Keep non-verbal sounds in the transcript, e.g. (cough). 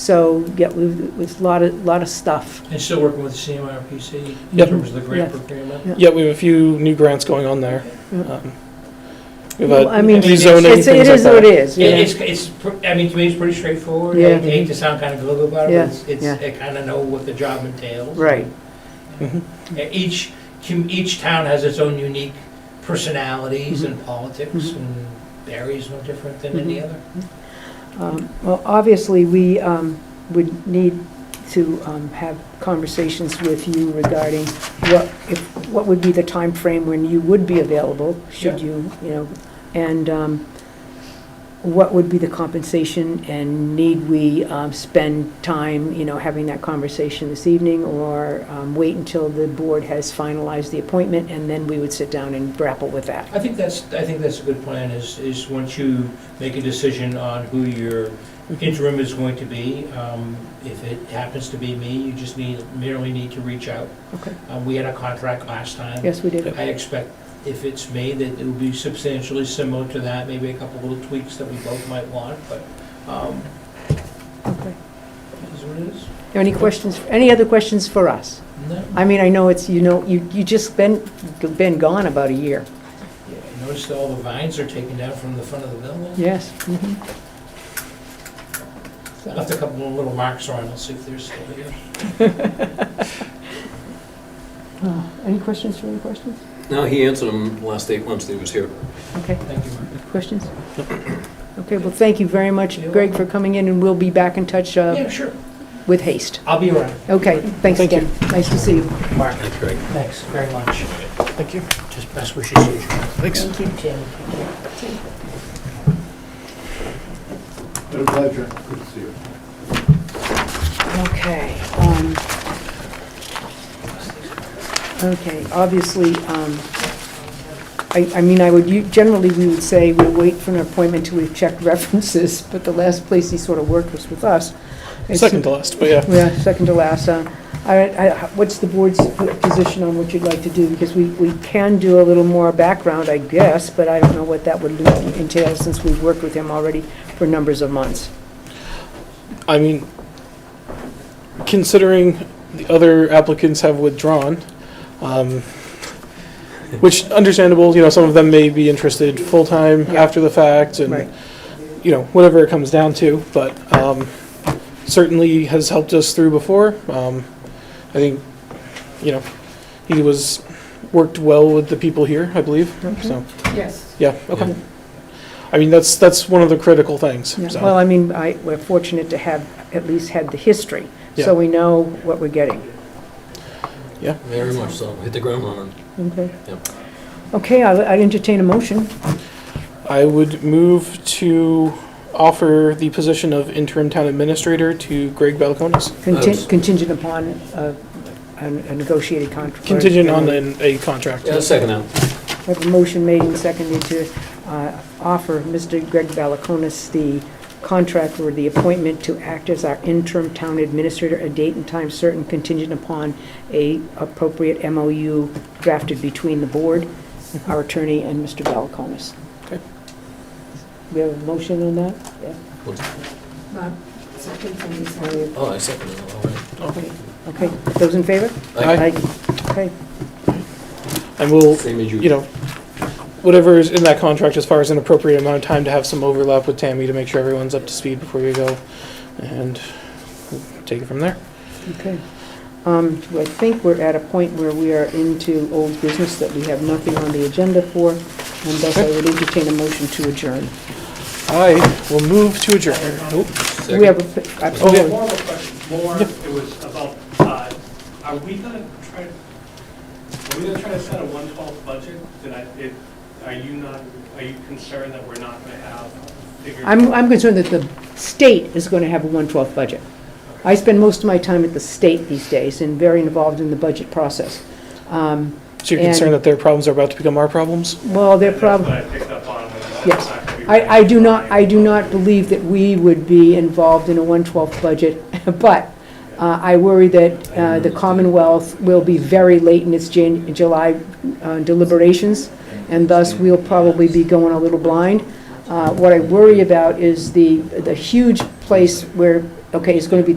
So, yeah, we've, it's a lot of, lot of stuff. And still working with CMRPC in Yep. terms of the grant Yeah. procurement? Yeah. Yeah, we have a few new grants going on there. Yeah. Um, We have Mm. Well, I a mean, it's- rezoning, it's- things like It is what that. it is, It- yeah. It's, it's, pr- I mean, to me, it's pretty straightforward. Yeah. I hate to sound kind of glib about Yeah, it, but it's, yeah. it's- I kind of know what the job entails. Right, Mhm. Uh, Each, com- each town has its own unique personalities Mm-hmm. and politics, Mhm. and Barry's no different than any Mhm. other. Um, Well, obviously, we um, would need to um, have conversations with you regarding what, if, what would be the time frame when you would be available, should Yeah. you, you know, and um, what would be the compensation, and need we um, spend time, you know, having that conversation this evening, or um, wait until the board has finalized the appointment, and then we would sit down and grapple with that? I think that's, I think that's a good plan, is, is once you make a decision on who your interim is going to be, um, if it happens to be me, you just need, merely need to reach out. Okay. Uh, We had a contract last time. Yes, we did. I expect if it's made, that it will be substantially similar to that, maybe a couple little tweaks that we both might want, but um, Okay. it is what it is. Any questions, any other questions for us? No, I mean, I know it's, you know, you, you just been, been gone about a year. Yeah, I noticed all the vines are taken down from the front of the building. Yes. Mm-hmm. Left a couple more little marks on, I'll see if they're still here. Uh, Any questions, any questions? No, he answered them last eight months that he was here. Okay, Thank you, Mark. questions? Okay, well, thank you very much, You're Greg, for coming in, and we'll be back in touch uh, Yeah, sure, with haste. I'll be around. Okay, thanks Thank you. again. Nice to see you. Mark, That's great. thanks very much. Thank you. Just best wishes to you. Thanks. Thank you. Tim. Been a pleasure. Good to see you. Okay. um, Okay, obviously, um, I, I mean, I would, u- generally, we would say we'll wait for an appointment till we've checked (laughs) references, but the last place he sort of worked was with us. It's- Second to last, but yeah. Yeah, second to last. uh, All right, I- what's the board's position on what you'd like to do? Because we, we can do a little more background, I guess, but I don't know what that would entail since we've worked with him already for numbers of months. I mean, considering the other applicants have withdrawn, um, which understandable, you know, some of them may be interested full-time Yeah. after the fact Right. and, you know, whatever it comes down to, but um, certainly has helped us through before. Um, I think, you know, he was, worked well with the people here, I believe, Mm-hmm. so, Yes. yeah, okay. I mean, that's, that's one of the critical things, so. Well, I mean, I, we're fortunate to have at least had the history, Yeah. so we know what we're getting. Very much so. Hit the ground running. Okay. Yep. Okay, I- I'd entertain a motion. I would move to offer the position of interim town administrator to Greg Balcones, Contin- Oops. Contingent upon uh, a a negotiated contract. contingent on an- a contract. Yeah, second that. We have a motion made and seconded to uh, offer Mr. Greg Balakonis the contract or the appointment to act as our interim town administrator, a date and time certain contingent upon a appropriate MOU drafted between the board, our attorney, and Mr. Balakonis. Okay. We have a motion on that? Oh, I second that. All right. Okay, those in favor? Aye. Okay, And we'll, Same as you know, whatever is in that contract as far as an appropriate amount of time to have some overlap with Tammy to make sure everyone's up to speed before you go, and we'll take it from there. okay. Um, I think we're at a point where we are into old business that we have nothing on the agenda for, and thus I would entertain a motion to adjourn. I will move to adjourn. Nope. Second. We have, a- I- Oh, yeah. More of a question, more, it was about, uh, are we gonna try, are we gonna try to set a one twelve budget? Did I, it, are you not, are you concerned that we're not gonna have figured? I'm, I'm concerned that the state is going to have a 1/12 budget. I spend most of my time at the state these days and very involved in the budget process. Um, So you're And- concerned that their problems are about to become our problems? Well, their That's what problem, I picked up on, was that Yes. it's not gonna be ready I, I do in not, time. I do not believe that we would be involved in a 1/12 budget, (laughs) but uh, I worry that uh, the Commonwealth will be very late in its Jan, July uh, deliberations, and thus we'll probably be going a little blind. Uh, What I worry about is the, the huge place where Okay, it's going to be